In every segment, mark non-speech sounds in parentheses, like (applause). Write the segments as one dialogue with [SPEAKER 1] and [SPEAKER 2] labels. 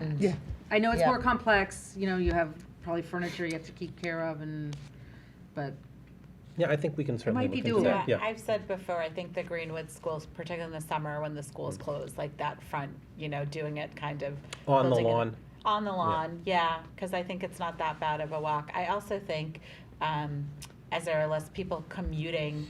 [SPEAKER 1] Mm.
[SPEAKER 2] Yeah.
[SPEAKER 3] I know it's
[SPEAKER 1] Yeah.
[SPEAKER 3] more complex, you know, you have probably furniture you have to keep care of and, but,
[SPEAKER 2] Yeah, I think we can certainly
[SPEAKER 3] might be
[SPEAKER 2] look into that,
[SPEAKER 3] doable.
[SPEAKER 1] Yeah,
[SPEAKER 2] yeah.
[SPEAKER 1] I've said before, I think the Greenwood schools, particularly in the summer when the school's closed, like that front, you know, doing it kind of.
[SPEAKER 2] On the
[SPEAKER 1] building it-
[SPEAKER 2] lawn.
[SPEAKER 1] On the lawn, yeah, because I think it's not that bad of a walk. I also think, um, as there are less people commuting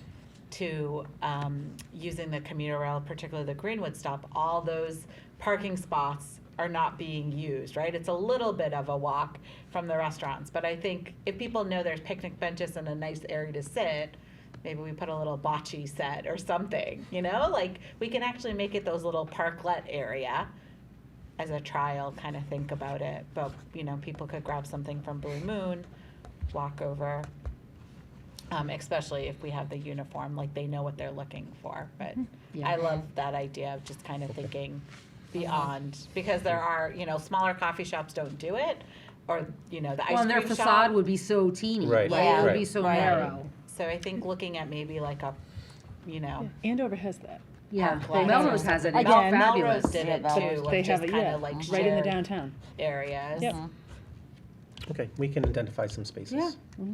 [SPEAKER 1] to, um, using the commuter rail, particularly the Greenwood stop, all those parking spots are not being used, right? It's a little bit of a walk from the restaurants, but I think if people know there's picnic benches and a nice area to sit, maybe we put a little bocce set or something, you know? Like, we can actually make it those little parklet area as a trial kind of think about it. But, you know, people could grab something from Blue Moon, walk over, um, especially if we have the uniform, like they know what they're looking for. But I
[SPEAKER 3] Mm-hmm. Yeah. Uh-huh.
[SPEAKER 1] love that idea of just kind of thinking beyond, because there are, you know, smaller coffee shops don't do it, or, you know, the ice cream
[SPEAKER 3] well,
[SPEAKER 1] shop.
[SPEAKER 3] and their facade would be so teeny,
[SPEAKER 2] Right,
[SPEAKER 3] right? It would
[SPEAKER 1] Yeah.
[SPEAKER 3] be so
[SPEAKER 1] right.
[SPEAKER 3] narrow.
[SPEAKER 1] So I think looking at maybe like a, you know,
[SPEAKER 4] Andover has that,
[SPEAKER 3] Yeah,
[SPEAKER 1] Park
[SPEAKER 3] well,
[SPEAKER 1] lot.
[SPEAKER 3] Melrose has it, it's
[SPEAKER 4] Again.
[SPEAKER 3] fabulous.
[SPEAKER 1] Melrose did it
[SPEAKER 5] Yeah,
[SPEAKER 1] too,
[SPEAKER 4] They
[SPEAKER 1] of
[SPEAKER 4] have
[SPEAKER 1] just
[SPEAKER 4] it,
[SPEAKER 1] kind
[SPEAKER 4] yeah,
[SPEAKER 1] of like
[SPEAKER 4] right in the
[SPEAKER 1] shared
[SPEAKER 4] downtown.
[SPEAKER 1] areas.
[SPEAKER 4] Yep.
[SPEAKER 2] Okay, we can identify some spaces.
[SPEAKER 3] Yeah.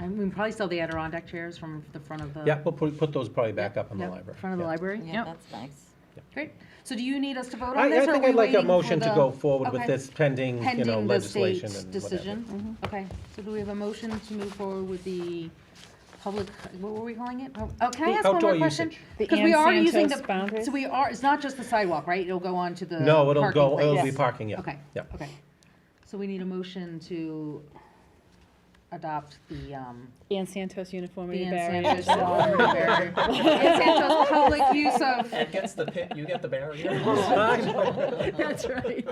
[SPEAKER 3] I mean, probably still the Adirondack chairs from the front of the.
[SPEAKER 2] Yeah, we'll put, put those probably back up in the
[SPEAKER 3] Yep,
[SPEAKER 2] library.
[SPEAKER 3] Front of the
[SPEAKER 2] yeah.
[SPEAKER 3] library,
[SPEAKER 5] Yeah,
[SPEAKER 3] yep,
[SPEAKER 5] that's nice.
[SPEAKER 3] great. So do you need us to vote on
[SPEAKER 2] I, I
[SPEAKER 3] this, or are
[SPEAKER 2] think
[SPEAKER 3] we
[SPEAKER 2] I'd like
[SPEAKER 3] waiting
[SPEAKER 2] a
[SPEAKER 3] for
[SPEAKER 2] motion to
[SPEAKER 3] the-
[SPEAKER 2] go forward with
[SPEAKER 3] Okay.
[SPEAKER 2] this pending, you know,
[SPEAKER 3] Pending the
[SPEAKER 2] legislation
[SPEAKER 3] state's
[SPEAKER 2] and whatever.
[SPEAKER 3] decision?
[SPEAKER 1] Mm-hmm.
[SPEAKER 3] Okay, so do we have a motion to move forward with the public, what were we calling it? Oh, oh, can I ask one
[SPEAKER 2] Outdoor
[SPEAKER 3] more question?
[SPEAKER 2] usage.
[SPEAKER 4] The
[SPEAKER 3] Because we
[SPEAKER 4] Ann
[SPEAKER 3] are using
[SPEAKER 4] Santos
[SPEAKER 3] the,
[SPEAKER 4] boundaries?
[SPEAKER 3] so we are, it's not just the sidewalk, right? It'll go on to the
[SPEAKER 2] No, it'll
[SPEAKER 3] parking
[SPEAKER 2] go, it'll
[SPEAKER 3] place.
[SPEAKER 2] be parking, yeah.
[SPEAKER 3] Okay,
[SPEAKER 2] Yeah.
[SPEAKER 3] okay. So we need a motion to adopt the, um,
[SPEAKER 4] And Santos uniformity
[SPEAKER 3] the Ann
[SPEAKER 4] barriers.
[SPEAKER 3] Santos lawn (laughs) barrier. Ann Santos public use of,
[SPEAKER 6] It gets the pit, you get
[SPEAKER 2] (laughs)
[SPEAKER 6] the
[SPEAKER 4] (laughs)
[SPEAKER 6] barrier. (laughs)
[SPEAKER 4] That's right.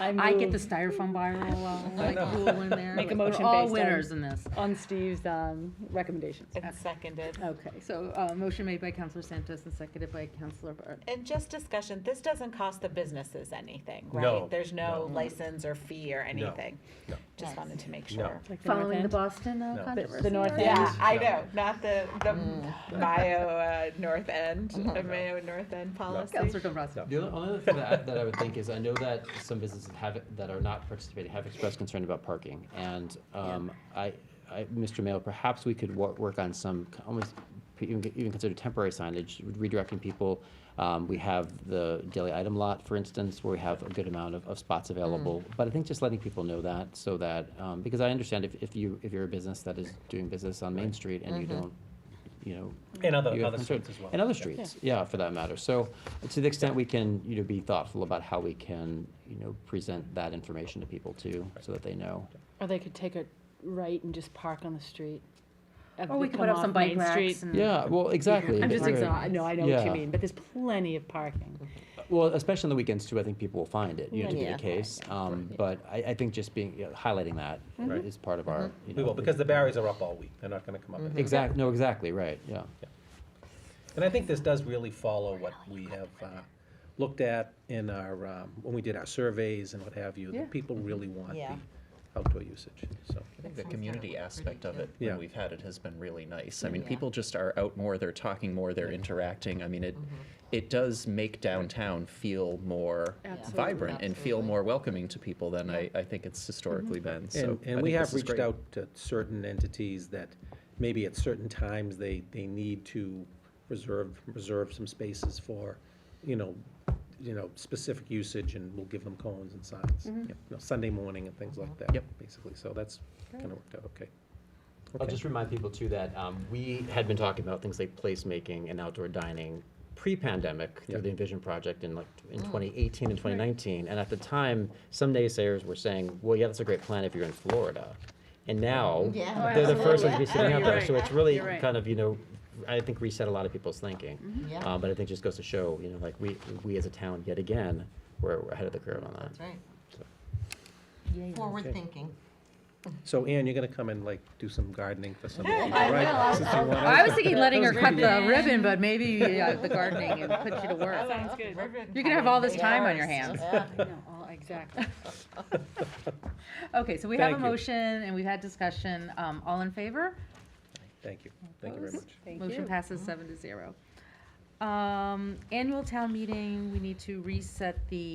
[SPEAKER 3] I get the
[SPEAKER 4] move
[SPEAKER 3] styrofoam viral, uh, like,
[SPEAKER 2] know.
[SPEAKER 3] rule in there.
[SPEAKER 4] Make a
[SPEAKER 3] We're
[SPEAKER 4] motion
[SPEAKER 3] all
[SPEAKER 4] based on-
[SPEAKER 3] winners in this.
[SPEAKER 4] On Steve's, um, recommendations.
[SPEAKER 1] It's seconded.
[SPEAKER 3] Okay, so, uh, motion made by Counselor Santos and seconded by Counselor Barton.
[SPEAKER 1] And just discussion, this doesn't cost the businesses anything, right?
[SPEAKER 2] No,
[SPEAKER 1] There's no,
[SPEAKER 2] no.
[SPEAKER 1] license or fee or anything.
[SPEAKER 2] no.
[SPEAKER 5] Nice.
[SPEAKER 1] Just wanted to make
[SPEAKER 2] No.
[SPEAKER 1] sure.
[SPEAKER 4] like the north
[SPEAKER 3] Following the
[SPEAKER 4] end.
[SPEAKER 3] Boston uh,
[SPEAKER 2] No.
[SPEAKER 3] controversy.
[SPEAKER 4] The North
[SPEAKER 3] right?
[SPEAKER 4] End.
[SPEAKER 1] Yeah, I
[SPEAKER 2] No.
[SPEAKER 1] know, not the, the
[SPEAKER 5] Mm.
[SPEAKER 1] Mayo uh, North End,
[SPEAKER 5] Mm-hmm.
[SPEAKER 1] uh, Mayo North End policy.
[SPEAKER 3] Counselor Dombrowski.
[SPEAKER 6] The only- only other thing that I, that I would think is, I know that some businesses have, that are not participating have expressed concern about parking. And, um, I, I, Mr. Mayo, perhaps we could work, work on some, c- almost, p- even, even consider temporary signage, redirecting people. Um, we have the daily item lot, for instance, where we have a good amount of, of spots available. But I think just letting people know that, so that, um, because I understand if, if you, if you're a business that is doing business on Main Street and you don't, you know,
[SPEAKER 2] And other,
[SPEAKER 6] you have
[SPEAKER 2] other
[SPEAKER 6] concern-
[SPEAKER 2] streets as well.
[SPEAKER 6] And other streets, yeah, for that matter. So to the extent we can, you know, be thoughtful about how we can, you know, present that information to people too, so that they know.
[SPEAKER 4] Or they could take a right and just park on the street. Have
[SPEAKER 3] Or
[SPEAKER 4] to
[SPEAKER 3] we could
[SPEAKER 4] come
[SPEAKER 3] put up
[SPEAKER 4] off
[SPEAKER 3] some
[SPEAKER 4] Main
[SPEAKER 3] bike racks
[SPEAKER 4] Street.
[SPEAKER 3] and.
[SPEAKER 6] Yeah, well, exactly.
[SPEAKER 4] I'm just
[SPEAKER 6] Right.
[SPEAKER 4] exhausted, no, I know what you
[SPEAKER 6] Yeah.
[SPEAKER 4] mean, but there's plenty of parking.
[SPEAKER 6] Well, especially on the weekends too, I think people will find it, you know, to be
[SPEAKER 5] Yeah.
[SPEAKER 6] the case. Um, but I, I think just being, you know, highlighting that
[SPEAKER 4] Mm-hmm.
[SPEAKER 2] Right.
[SPEAKER 6] is part of our, you know.
[SPEAKER 2] We will, because the barriers are up all week, they're not gonna come up.
[SPEAKER 3] Mm-hmm.
[SPEAKER 2] every day.
[SPEAKER 6] Exact, no, exactly, right, yeah.
[SPEAKER 2] And I think this does really follow what we have uh, looked at in our, um, when we did our surveys and what have you,
[SPEAKER 3] Yeah.
[SPEAKER 2] that people really want the
[SPEAKER 5] Yeah.
[SPEAKER 2] outdoor usage, so.
[SPEAKER 7] I think the community aspect of it,
[SPEAKER 2] Yeah.
[SPEAKER 7] when we've had it, has been really nice. I mean, people just are out more, they're talking more, they're interacting. I mean, it, it does make downtown feel more vibrant and feel more welcoming to people than I, I think it's historically been, so.
[SPEAKER 2] Mm-hmm. And,
[SPEAKER 7] I
[SPEAKER 2] and we
[SPEAKER 7] think
[SPEAKER 2] have
[SPEAKER 7] this is
[SPEAKER 2] reached
[SPEAKER 7] great.
[SPEAKER 2] out to certain entities that maybe at certain times they, they need to reserve, reserve some spaces for, you know, you know, specific usage and we'll give them cones and signs. you know, Sunday morning and things like that.
[SPEAKER 7] Yep.
[SPEAKER 2] Basically, so that's kind of worked out, okay.
[SPEAKER 6] I'll
[SPEAKER 2] Okay.
[SPEAKER 6] just remind people too that um, we had been talking about things like placemaking and outdoor dining pre-pandemic
[SPEAKER 2] Yeah.
[SPEAKER 6] through the Envision Project in like, in
[SPEAKER 3] Mm.
[SPEAKER 6] 2018 and 2019. And at the time, some naysayers were saying, well, yeah, that's a great plan if you're in Florida. And now,
[SPEAKER 5] Yeah.
[SPEAKER 6] they're the first ones to
[SPEAKER 5] Absolutely.
[SPEAKER 6] be sitting out
[SPEAKER 3] You're
[SPEAKER 6] there. So
[SPEAKER 3] right.
[SPEAKER 6] it's really
[SPEAKER 3] You're right. Mm-hmm.
[SPEAKER 6] kind of, you know, I think reset a lot of people's thinking.
[SPEAKER 5] Yeah.
[SPEAKER 6] Uh, But I think it just goes to show, you know, like we, we as a town, yet again, we're we're ahead of the curve on that.
[SPEAKER 5] That's right. Forward thinking.
[SPEAKER 2] So Ann, you're gonna come and like do some gardening for some
[SPEAKER 5] Yeah,
[SPEAKER 2] people,
[SPEAKER 5] I will.
[SPEAKER 2] right?
[SPEAKER 5] I'll-
[SPEAKER 2] Since you
[SPEAKER 5] I'll-
[SPEAKER 2] wanna-
[SPEAKER 3] I was thinking letting her cut the
[SPEAKER 4] ribbon.
[SPEAKER 3] ribbon, but maybe yeah, the gardening and put you to
[SPEAKER 1] Oh,
[SPEAKER 4] (laughs)
[SPEAKER 3] work.
[SPEAKER 4] Sounds good.
[SPEAKER 3] You're gonna have all this time on your hands.
[SPEAKER 4] (laughs) Exactly.
[SPEAKER 3] Okay, so we have a
[SPEAKER 2] Thank you.
[SPEAKER 3] motion and we've had discussion. Um, all in favor?
[SPEAKER 2] Thank you, thank you very much.
[SPEAKER 4] Thank
[SPEAKER 3] Motion
[SPEAKER 4] you. Mm-hmm.
[SPEAKER 3] passes seven to zero. Um, annual town meeting, we need to reset the